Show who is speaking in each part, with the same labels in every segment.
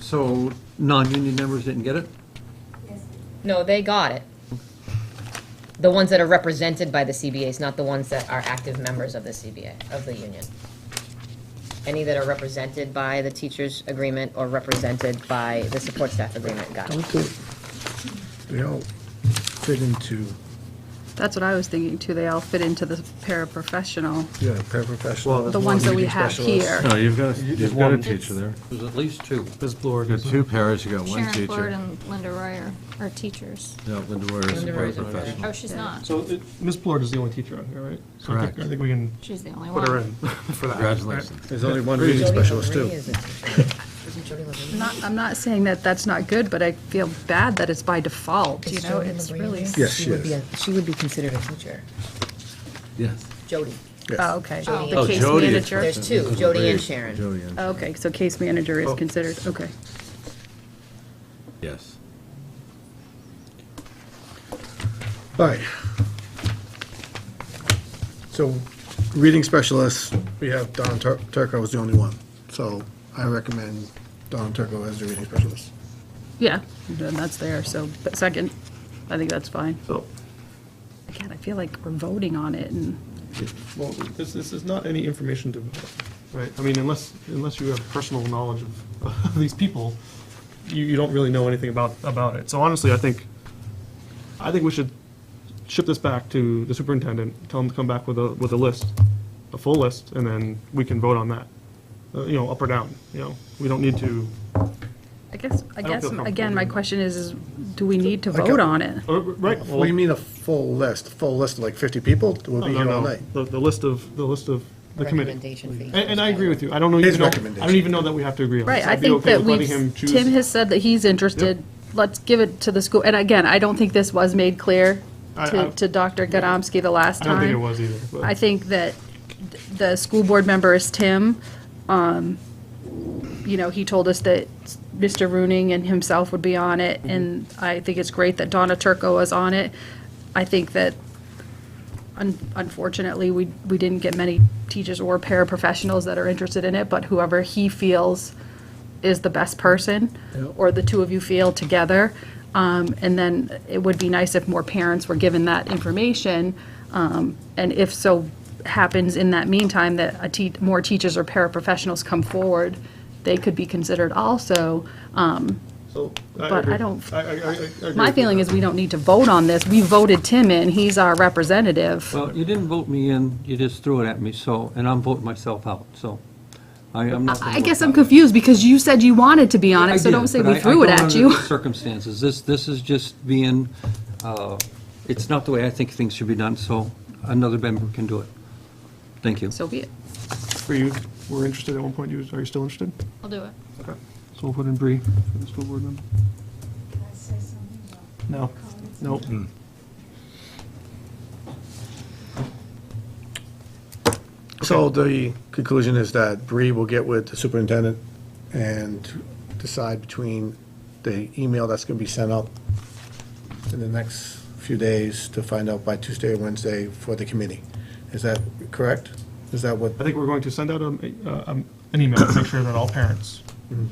Speaker 1: So non-union members didn't get it?
Speaker 2: No, they got it. The ones that are represented by the CBAs, not the ones that are active members of the CBA, of the union. Any that are represented by the teachers' agreement or represented by the support staff agreement, got it.
Speaker 3: Okay. They all fit into,
Speaker 4: That's what I was thinking too. They all fit into the paraprofessional,
Speaker 3: yeah,
Speaker 5: Well,
Speaker 3: paraprofessional.
Speaker 4: the ones that we
Speaker 3: reading
Speaker 4: have
Speaker 3: specialist.
Speaker 4: here.
Speaker 5: No, you've got, a-
Speaker 3: You-
Speaker 5: you've got a
Speaker 3: one-
Speaker 5: teacher there.
Speaker 1: There's at least two.
Speaker 6: Ms. Blore.
Speaker 5: You've got two pairs, you've got one
Speaker 7: Sharon Ford
Speaker 5: teacher.
Speaker 7: and Linda Roy are, are teachers.
Speaker 5: No, Linda Royer is a
Speaker 2: Linda Royer's a paraprofessional.
Speaker 5: paraprofessional.
Speaker 7: Oh, she's not.
Speaker 6: So it- Ms. Blore is the only teacher on here, right? So I think-
Speaker 5: Correct.
Speaker 6: I think we can
Speaker 7: She's the only one.
Speaker 6: put her in for that.
Speaker 5: Congratulations.
Speaker 3: There's only one reading specialist
Speaker 2: Jody
Speaker 3: too.
Speaker 2: Levine is a teacher. Isn't Jody Levine?
Speaker 4: I'm not, I'm not saying that that's not good, but I feel bad that it's by default, you
Speaker 2: Is
Speaker 4: know,
Speaker 2: Jody
Speaker 4: it's
Speaker 2: Levine
Speaker 4: really.
Speaker 2: there?
Speaker 3: Yes, she
Speaker 2: would be
Speaker 3: is.
Speaker 2: a- She would be considered a teacher.
Speaker 5: Yes.
Speaker 2: Jody.
Speaker 3: Yes.
Speaker 4: Oh, okay.
Speaker 7: Jody
Speaker 4: The
Speaker 5: Oh,
Speaker 4: case
Speaker 5: Jody is
Speaker 4: manager.
Speaker 2: There's two, Jody and Sharon.
Speaker 5: Jody and,
Speaker 4: Okay, so case manager
Speaker 6: Oh.
Speaker 4: is considered, okay.
Speaker 5: yes.
Speaker 3: All right. So, reading specialist, we have Don Tur- Turco is the only one. So I recommend Don Turco as the reading specialist.
Speaker 4: Yeah, then that's there, so, but second, I think that's fine.
Speaker 6: So,
Speaker 4: Again, I feel like we're voting on it and,
Speaker 6: well, this, this is not any information to, right? I mean, unless, unless you have personal knowledge of- of these people, you, you don't really know anything about, about it. So honestly, I think, I think we should ship this back to the superintendent, tell him to come back with a, with a list, a full list, and then we can vote on that. Uh, You know, up or down, you know? We don't need to,
Speaker 4: I guess, I
Speaker 6: don't
Speaker 4: guess,
Speaker 6: feel comfortable
Speaker 4: again, my
Speaker 6: doing that.
Speaker 4: question is, is do we need to
Speaker 3: Like a-
Speaker 4: vote on it?
Speaker 6: uh, right? well-
Speaker 3: We mean a full list, full list of like 50 people? We'll
Speaker 6: No,
Speaker 3: be
Speaker 6: no,
Speaker 3: here all
Speaker 6: no.
Speaker 3: night.
Speaker 6: The, the list of, the list of the committee.
Speaker 2: Recommendation fee.
Speaker 6: And, and I agree with you. I don't know,
Speaker 3: His
Speaker 6: even know, I don't
Speaker 3: recommendation.
Speaker 6: even know that we have to agree on this.
Speaker 4: Right, I
Speaker 6: I'd be
Speaker 4: think
Speaker 6: okay
Speaker 4: that
Speaker 6: with letting him
Speaker 4: we've,
Speaker 6: choose.
Speaker 4: Tim has said that he's interested, let's give it to the school, and again, I don't think this was made clear
Speaker 6: I- I-
Speaker 4: to, to Dr. Godomsky the last
Speaker 6: I
Speaker 4: time.
Speaker 6: don't think it was either,
Speaker 4: I
Speaker 6: but
Speaker 4: think that the school board member is Tim. Um, You know, he told us that Mr. Rooney and himself would be on
Speaker 6: Mm-hmm.
Speaker 4: it, and I think it's great that Donna Turco is on it. I think that un- unfortunately, we, we didn't get many teachers or paraprofessionals that are interested in it, but whoever he feels is the best person, or the two of you feel together. Um, And then it would be nice if more parents were given that information. um, And if so happens in that meantime, that a tea, more teachers or paraprofessionals come forward, they could be considered also. Um,
Speaker 6: so.
Speaker 4: but I
Speaker 6: agree.
Speaker 4: don't-
Speaker 6: I, I, I- I agree with
Speaker 4: My
Speaker 6: you.
Speaker 4: feeling is we don't need to vote on this. We voted Tim in, he's our representative.
Speaker 1: Well, you didn't vote me in, you just threw it at me, so, and I'm voting myself out, so I am not. gonna
Speaker 4: I guess
Speaker 1: vote
Speaker 4: I'm
Speaker 1: that way.
Speaker 4: confused because you said you wanted to be on
Speaker 1: I
Speaker 4: it, so
Speaker 1: did,
Speaker 4: don't say
Speaker 1: but I-
Speaker 4: we
Speaker 1: I
Speaker 4: threw it
Speaker 1: don't
Speaker 4: at
Speaker 1: under
Speaker 4: you.
Speaker 1: the Circumstances, this, this is just being, uh, it's not the way I think things should be done, so another member can do it. Thank you.
Speaker 4: So be it.
Speaker 6: Were you, were interested at one point, you, are you still interested?
Speaker 7: I'll do it.
Speaker 6: Okay. So we'll put in Bree for the school board member. No, no.
Speaker 3: So the conclusion is that Bree will get with the superintendent and decide between the email that's going to be sent out in the next few days to find out by Tuesday or Wednesday for the committee. Is that correct? Is that what,
Speaker 6: I think we're going to send out a, a- um, an email to make sure that all parents,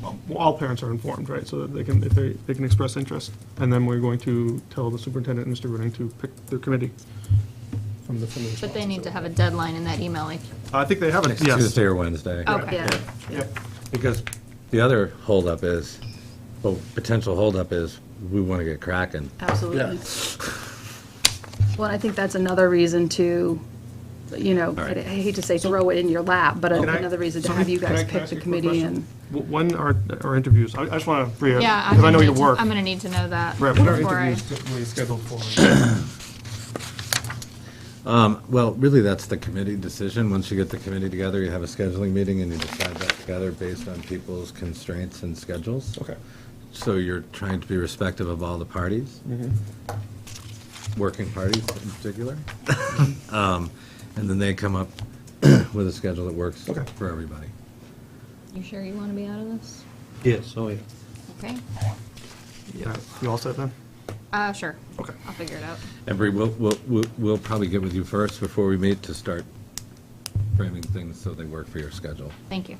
Speaker 6: well, all parents are informed, right? So that they can, if they, they can express interest. And then we're going to tell the superintendent, and Mr. Rooney, to pick their committee from the, from the
Speaker 7: But
Speaker 6: response.
Speaker 7: they need to have a deadline in that email, like,
Speaker 6: I think they have it,
Speaker 5: Next
Speaker 6: yes.
Speaker 5: Tuesday or Wednesday.
Speaker 4: Oh,
Speaker 7: okay.
Speaker 6: Yep.
Speaker 5: Because the other holdup is, well, potential holdup is, we want to get cracking.
Speaker 4: Absolutely. Well, I think that's another reason to, you know, I
Speaker 5: right.
Speaker 4: I hate to say throw it in your lap, but
Speaker 6: Can I-
Speaker 4: another reason to
Speaker 6: so
Speaker 4: have you
Speaker 6: can I-
Speaker 4: guys
Speaker 6: can I
Speaker 4: pick
Speaker 6: ask
Speaker 4: the
Speaker 6: you a quick
Speaker 4: committee
Speaker 6: question?
Speaker 4: and.
Speaker 6: W- When are, are interviews? I I just want to, Bria,
Speaker 7: Yeah, I'm
Speaker 6: because I know
Speaker 7: gonna
Speaker 6: your
Speaker 7: need to,
Speaker 6: work.
Speaker 7: I'm gonna need to know that
Speaker 6: Right, what are
Speaker 7: before I,
Speaker 6: interviews typically scheduled for?
Speaker 5: Well, really, that's the committee decision. Once you get the committee together, you have a scheduling meeting and you decide that together based on people's constraints and schedules.
Speaker 6: Okay.
Speaker 5: So you're trying to be respective of all the parties,
Speaker 6: Mm-hmm.
Speaker 5: working parties in particular. Um, And then they come up with a schedule that works
Speaker 6: Okay.
Speaker 5: for everybody.
Speaker 7: you sure you wanna be out of this?
Speaker 1: Yes, oh, yeah.
Speaker 7: Okay,
Speaker 6: Yeah, You all set then?
Speaker 7: uh, sure.
Speaker 6: Okay.
Speaker 7: I'll figure it out.
Speaker 5: And Bree, we'll, we'll- we'll, we'll probably get with you first before we meet to start framing things so they work for your schedule.
Speaker 7: Thank you.